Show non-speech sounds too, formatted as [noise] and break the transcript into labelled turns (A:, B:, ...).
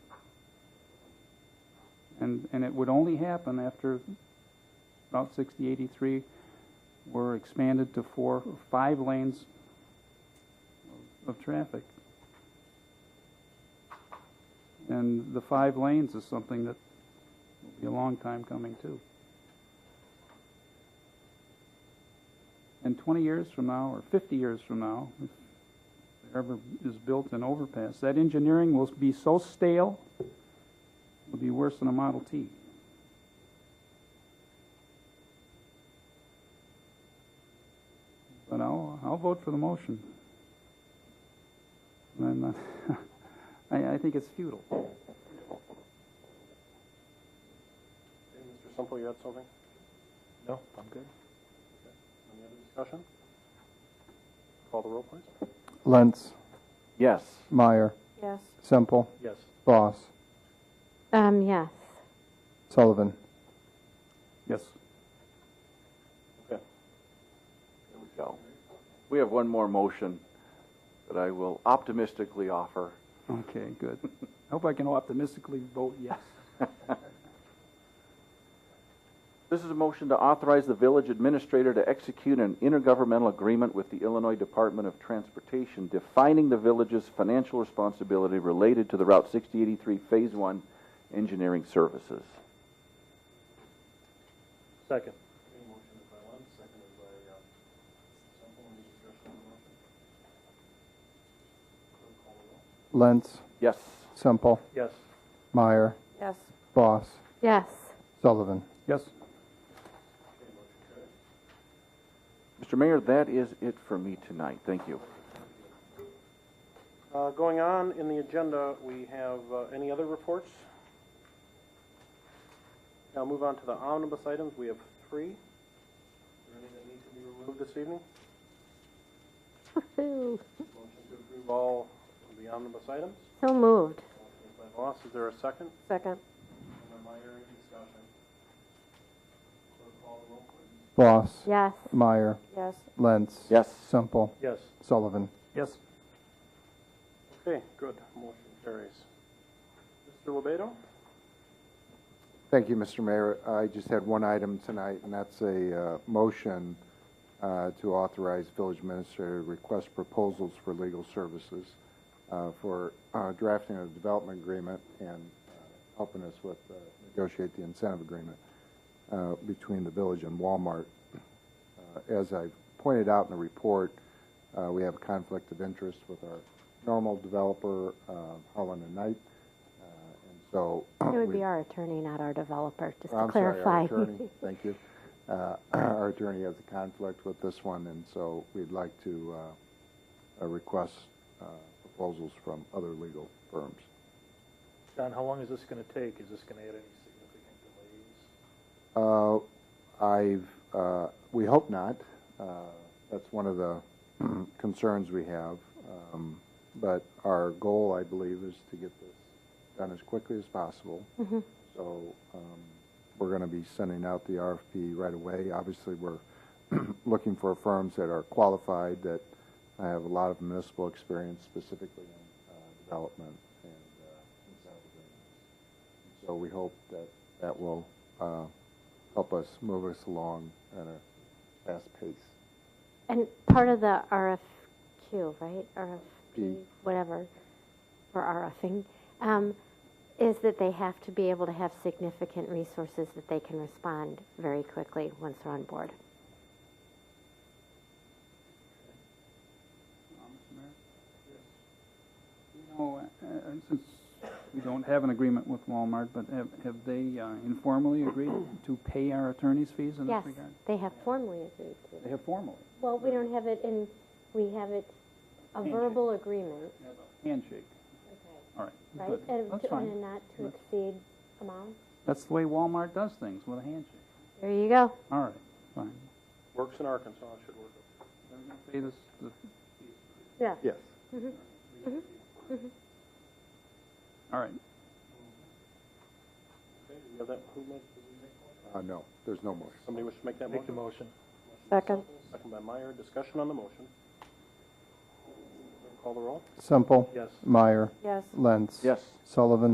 A: And, and it would only happen after Route 60, 83 were expanded to four, five lanes of traffic. And the five lanes is something that will be a long time coming too. And 20 years from now, or 50 years from now, if there ever is built an overpass, that engineering will be so stale, it'll be worse than a Model T. But I'll, I'll vote for the motion. And I'm not, [laughs] I, I think it's futile.
B: Hey, Mr. Simple, you had something?
C: No, I'm good.
B: Any other discussion? Call the roll, please.
D: Lentz,
C: Yes.
D: Meyer,
E: Yes.
D: Semple,
B: Yes.
D: Boss,
E: Um, yes.
D: Sullivan.
A: Yes.
B: Okay. There we go.
C: We have one more motion that I will optimistically offer.
A: Okay, good. [laughs] I hope I can optimistically vote yes.
C: This is a motion to authorize the village administrator to execute an intergovernmental agreement with the Illinois Department of Transportation defining the village's financial responsibility related to the Route 6083 Phase 1 engineering services.
B: Second. motion is by Lund, second is by, uh, Semple, any discussion on the motion? Clerk, call the roll.
D: Lentz,
C: Yes.
D: Semple,
B: Yes.
D: Meyer,
E: Yes.
D: Boss,
E: Yes.
D: Sullivan.
A: Yes.
C: Mr. Mayor, that is it for me tonight. Thank you.
B: Uh, going on in the agenda, we have, uh, any other reports? Now move on to the omnibus items. We have three. Is there any that need to be removed this evening?
E: Woohoo.
B: Motion to approve all of the omnibus items.
E: So moved.
B: Motion by Voss, is there a second?
E: Second.
B: Second by Meyer, any discussion? Clerk call the roll, please.
D: Boss,
E: Yes.
D: Meyer,
E: Yes.
D: Lentz,
C: Yes.
D: Semple,
B: Yes.
D: Sullivan.
A: Yes.
B: Okay, good, motion carries. Mr. Lebato?
F: Thank you, Mr. Mayor. I just had one item tonight, and that's a uh, motion uh, to authorize village administrator to request proposals for legal services uh, for uh, drafting a development agreement and uh, helping us with uh, negotiate the incentive agreement uh, between the village and Walmart. Uh, As I pointed out in the report, uh, we have a conflict of interest with our normal developer, uh, Holland and Knight. uh, And so.
E: It would
F: we-
E: be our attorney, not our developer, just to
F: I'm sorry,
E: clarify. [laughs]
F: our attorney, thank you. Uh, [clears throat] Our attorney has a conflict with this one, and so we'd like to uh, uh, request uh, proposals from other legal firms.
G: Don, how long is this going to take? Is this going to add any significant delays?
F: Uh, I've, uh, we hope not. Uh, That's one of the concerns we have. Um, But our goal, I believe, is to get this done as quickly as possible. So um, we're going to be sending out the RFP right away. Obviously, we're [clears throat] looking for firms that are qualified, that have a lot of municipal experience specifically in uh, development and uh, incentive agreements. So we hope that that will uh, help us move us along at a fast pace.
E: And part of the RFQ, right? RFP,
F: Mm.
E: whatever, or RFing, um, is that they have to be able to have significant resources that they can respond very quickly once they're on board.
F: Oh
A: You know, uh, uh, since we don't have an agreement with Walmart, but have, have they uh, informally agreed to pay our attorney's fees in this
E: Yes,
A: regard?
E: they have formally agreed to.
A: They have formally,
E: Well, we don't have it in, we have it, a verbal agreement,
A: handshake. All right,
E: right?
A: good.
E: And
A: That's
E: to- and a
A: fine.
E: not to exceed amount.
A: That's the way Walmart does things, with a handshake.
E: There you go.
A: All right, fine.
B: Works in Arkansas, should work.
A: Pay this, the-
E: Yeah.
F: Yes.
A: all right.
B: Okay, do you have that, who made, did you make one?
F: Uh, no, there's no motion.
B: Somebody wish to make that
G: Make the
B: motion?
G: motion.
E: Second.
B: Second by Meyer, discussion on the motion. Call the roll?
D: Semple,
G: Yes.
D: Meyer,
E: Yes.
D: Lentz,
C: Yes.
D: Sullivan.